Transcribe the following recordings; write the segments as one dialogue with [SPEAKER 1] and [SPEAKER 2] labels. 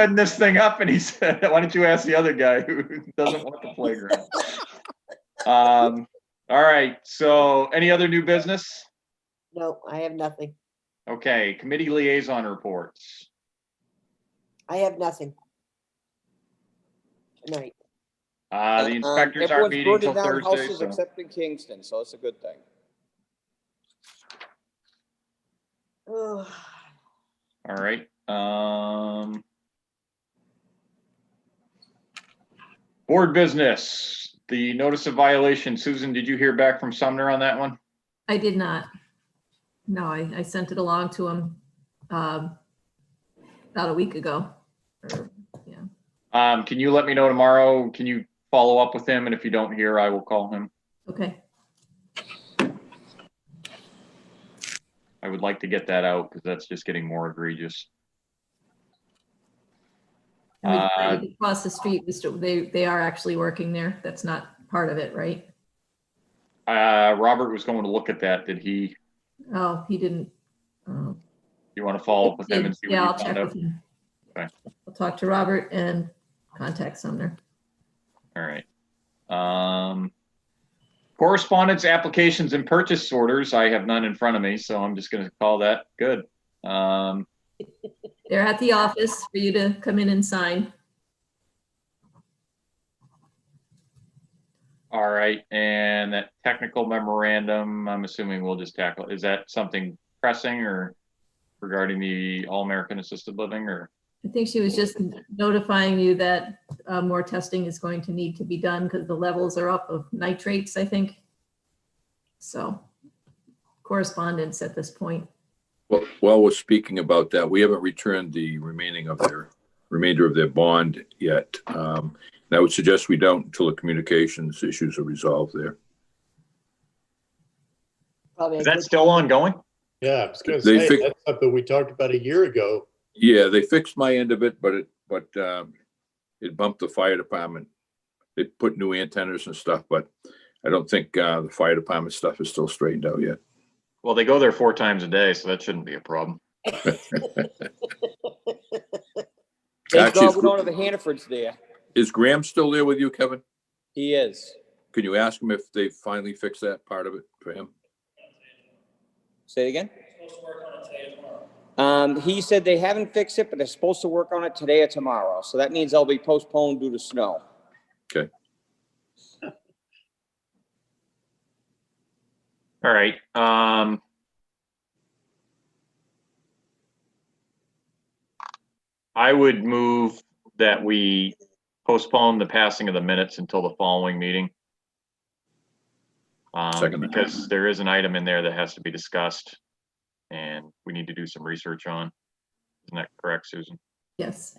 [SPEAKER 1] setting this thing up, and he said, why don't you ask the other guy who doesn't want the playground? Um, all right, so any other new business?
[SPEAKER 2] No, I have nothing.
[SPEAKER 1] Okay, committee liaison reports.
[SPEAKER 2] I have nothing. Tonight.
[SPEAKER 1] Uh, the
[SPEAKER 3] Um,
[SPEAKER 1] inspectors aren't
[SPEAKER 3] everyone's
[SPEAKER 1] meeting till
[SPEAKER 3] voted down
[SPEAKER 1] Thursday,
[SPEAKER 3] houses
[SPEAKER 1] so.
[SPEAKER 3] Except in Kingston, so it's a good thing.
[SPEAKER 2] Ugh.
[SPEAKER 1] All right, um. Board business, the notice of violation. Susan, did you hear back from Sumner on that one?
[SPEAKER 4] I did not. No, I, I sent it along to him um, about a week ago. or-
[SPEAKER 1] Um, can you let me know tomorrow? Can you follow up with him? And if you don't hear, I will call him.
[SPEAKER 4] Okay,
[SPEAKER 1] I would like to get that out because that's just getting more egregious.
[SPEAKER 4] And we
[SPEAKER 1] Uh,
[SPEAKER 4] decided across the street, Mr. they, they are actually working there. That's not part of it, right?
[SPEAKER 1] Uh, Robert was going to look at that. Did he,
[SPEAKER 4] Oh, he didn't. oh.
[SPEAKER 1] you want to follow up with him and see
[SPEAKER 4] Yeah, I'll
[SPEAKER 1] what he
[SPEAKER 4] check
[SPEAKER 1] found out?
[SPEAKER 4] with him.
[SPEAKER 1] Okay.
[SPEAKER 4] I'll talk to Robert and contact Sumner.
[SPEAKER 1] All right. Um, correspondence, applications and purchase orders. I have none in front of me, so I'm just going to call that good. Um,
[SPEAKER 4] They're at the office for you to come in and sign.
[SPEAKER 1] all right. And that technical memorandum, I'm assuming we'll just tackle. Is that something pressing or regarding the All American Assisted Living or?
[SPEAKER 4] I think she was just notifying you that uh, more testing is going to need to be done because the levels are up of nitrates, I think. So correspondence at this point.
[SPEAKER 5] Well, while we're speaking about that, we haven't returned the remaining of their, remainder of their bond yet. Um, And I would suggest we don't until the communications issues are resolved there.
[SPEAKER 2] Probably a
[SPEAKER 1] Is
[SPEAKER 2] good-
[SPEAKER 1] that still ongoing?
[SPEAKER 6] Yeah, I was gonna
[SPEAKER 5] They
[SPEAKER 6] say,
[SPEAKER 5] fix-
[SPEAKER 6] that's something we talked about a year ago.
[SPEAKER 5] Yeah, they fixed my end of it, but it, but um, it bumped the fire department. They put new antennas and stuff, but I don't think uh, the fire department stuff is still straightened out yet.
[SPEAKER 1] Well, they go there four times a day, so that shouldn't be a problem.
[SPEAKER 3] Dave
[SPEAKER 5] Actually, it's
[SPEAKER 3] Goggin,
[SPEAKER 5] good-
[SPEAKER 3] of the Hannaford's there.
[SPEAKER 5] Is Graham still there with you, Kevin?
[SPEAKER 3] He is.
[SPEAKER 5] Can you ask him if they finally fixed that part of it for him?
[SPEAKER 3] Say it again? Um, he said they haven't fixed it, but they're supposed to work on it today or tomorrow. So that means they'll be postponed due to snow.
[SPEAKER 1] All right, um. I would move that we postpone the passing of the minutes until the following meeting. Um,
[SPEAKER 5] Second.
[SPEAKER 1] because there is an item in there that has to be discussed. And we need to do some research on. Isn't that correct, Susan?
[SPEAKER 4] Yes,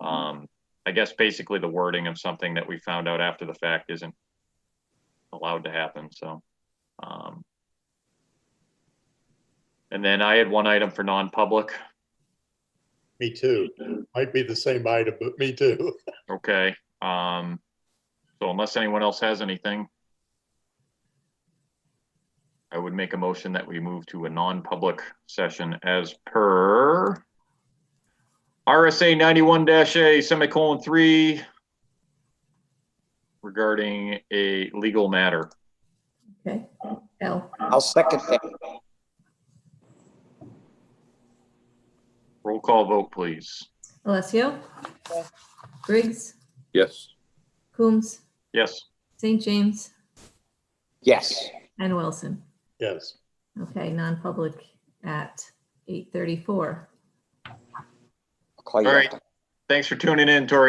[SPEAKER 1] Um, I guess basically the wording of something that we found out after the fact isn't allowed to happen, so. um And then I had one item for non-public,
[SPEAKER 6] Me too. Might be the same item, but me too.
[SPEAKER 1] okay? Um So unless anyone else has anything, I would make a motion that we move to a non-public session as per RSA ninety-one A semicolon three regarding a legal matter.
[SPEAKER 4] okay. Al,
[SPEAKER 3] I'll second that.
[SPEAKER 1] Roll call vote, please.
[SPEAKER 4] Alessio? Briggs,
[SPEAKER 5] Yes.
[SPEAKER 4] Coombs,
[SPEAKER 1] Yes.
[SPEAKER 4] St. James,
[SPEAKER 3] Yes.
[SPEAKER 4] and Wilson.
[SPEAKER 6] Yes.
[SPEAKER 4] Okay, non-public at 8:34.
[SPEAKER 3] I'll call you
[SPEAKER 1] All
[SPEAKER 3] after.
[SPEAKER 1] right. Thanks for tuning in, Tori.